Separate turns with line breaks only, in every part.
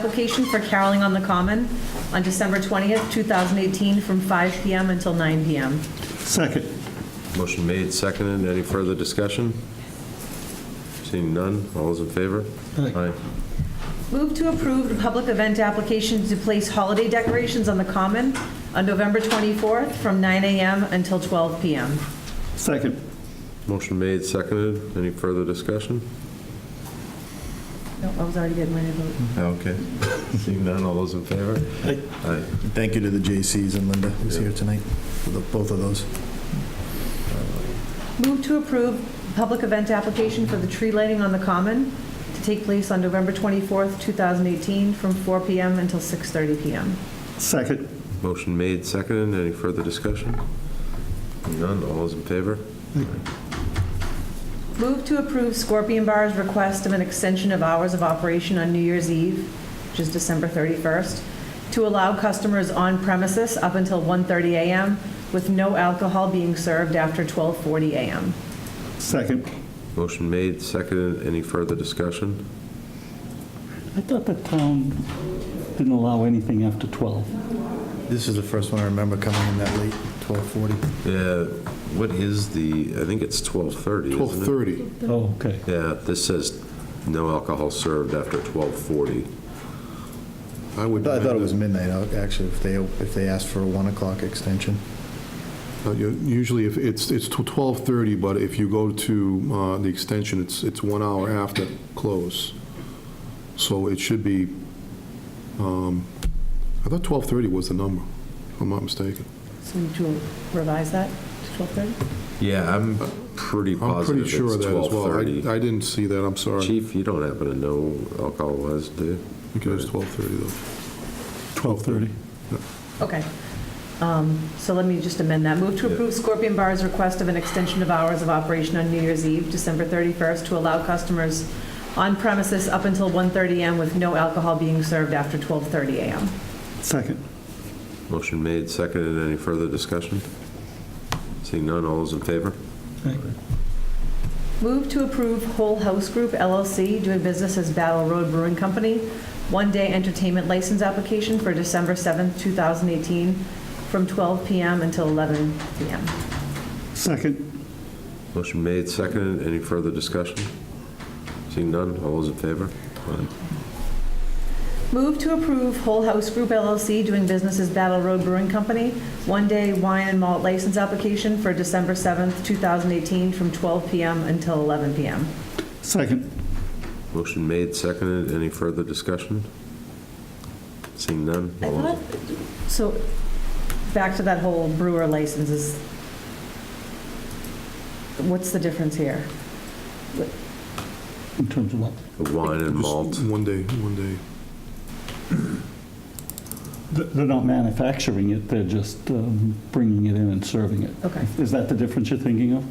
application for caroling on the common on December 20th, 2018, from 5 PM until 9 PM.
Second.
Motion made, seconded. Any further discussion? Seeing none, all those in favor?
Aye.
Move to approve the public event application to place holiday decorations on the common on November 24th, from 9 AM until 12 PM.
Second.
Motion made, seconded. Any further discussion?
No, I was already getting ready to vote.
Okay. Seeing none, all those in favor?
Aye.
Aye.
Thank you to the JCs and Linda who's here tonight for the- both of those.
Move to approve public event application for the tree lighting on the common to take place on November 24th, 2018, from 4 PM until 6:30 PM.
Second.
Motion made, seconded. Any further discussion? Seeing None, all those in favor?
Move to approve Scorpion Bar's request of an extension of hours of operation on New Year's Eve, which is December 31st, to allow customers on premises up until 1:30 a.m. with no alcohol being served after 12:40 a.m.
Second.
Motion made, seconded. Any further discussion?
I thought the town didn't allow anything after 12.
This is the first one I remember coming in that late, 12:40.
Yeah, what is the, I think it's 12:30, isn't it?
12:30.
Oh, okay.
Yeah, this says no alcohol served after 12:40.
I would,
I thought it
amend
was midnight, uh, actually, if they, if they asked for a 1 o'clock extension.
it. Uh, you- Usually, if it's, it's to 12:30, but if you go to uh, the extension, it's, it's one hour after close. So it should be, um, I thought 12:30 was the number, if I'm not mistaken.
So we need to revise that to 12:30?
Yeah, I'm pretty
I'm
positive
pretty
it's
sure of that as well. I-
12:30.
I didn't see that, I'm sorry.
Chief, you don't happen to know alcohol was, do you?
I think it was 12:30, though.
12:30.
Okay. Um, So let me just amend that. Move to
Yeah.
approve Scorpion Bar's request of an extension of hours of operation on New Year's Eve, December 31st, to allow customers on premises up until 1:30 a.m. with no alcohol being served after 12:30 a.m.
Second.
Motion made, seconded. Any further discussion? Seeing none, all those in favor?
Move to approve Whole House Group LLC, doing business as Battle Road Brewing Company, one-day entertainment license application for December 7th, 2018, from 12 p.m. until 11 p.m.
Second.
Motion made, seconded. Any further discussion? Seeing none, all those in favor? Aye.
Move to approve Whole House Group LLC doing business as Battle Road Brewing Company, one-day wine and malt license application for December 7th, 2018, from 12 p.m. until 11 p.m.
Second.
Motion made, seconded. Any further discussion? Seeing none?
I
all those-
thought, so, back to that whole brewer licenses, what's the difference here?
In terms of what?
The Wine and
Just
malt.
One day, one day.
Th- They're not manufacturing it, they're just um, bringing it in and serving it.
Okay.
Is that the difference you're thinking of?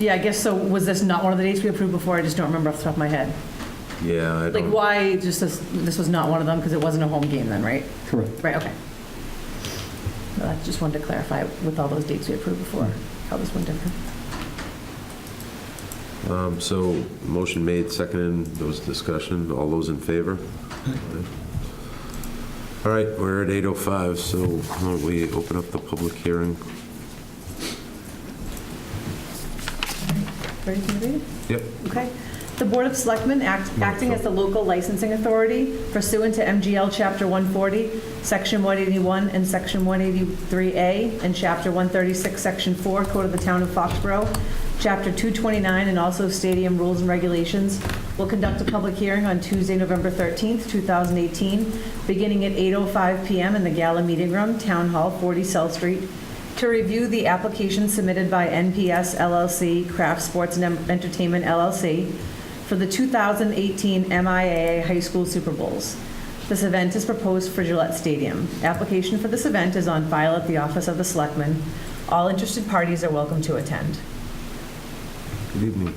Yeah, I guess so, was this not one of the dates we approved before? I just don't remember off the top of my head.
Yeah, I
Like,
don't.
why, just this, this was not one of them, because it wasn't a home game then, right?
Correct.
Right, okay. No, I just wanted to clarify with all those dates we approved before, how this one different.
Um, So, motion made, seconded, there was discussion, all those in favor? All right, we're at 8:05, so why don't we open up the public hearing?
Ready to read it?
Yep.
Okay. The Board of Selectmen, act- acting as the local licensing authority pursuant to MGL Chapter 140, Section 181 and Section 183A, and Chapter 136, Section 4, Code of the Town of Foxborough, Chapter 229, and also stadium rules and regulations, will conduct a public hearing on Tuesday, November 13th, 2018, beginning at 8:05 PM in the Gala Meeting Room, Town Hall, 40 South Street, to review the application submitted by NPS LLC, Craft Sports and Entertainment LLC, for the 2018 MIAA High School Super Bowls. This event is proposed for Gillette Stadium. Application for this event is on file at the Office of the Selectmen. All interested parties are welcome to attend.
Good evening.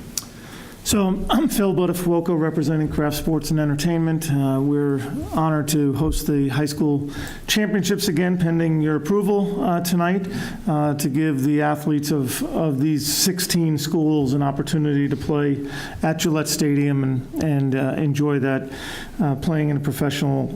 So I'm Phil Buttafuoco, representing Craft Sports and Entertainment. Uh, We're honored to host the high school championships again, pending your approval uh, tonight, uh, to give the athletes of, of these 16 schools an opportunity to play at Gillette Stadium and, and uh, enjoy that, uh, playing in a professional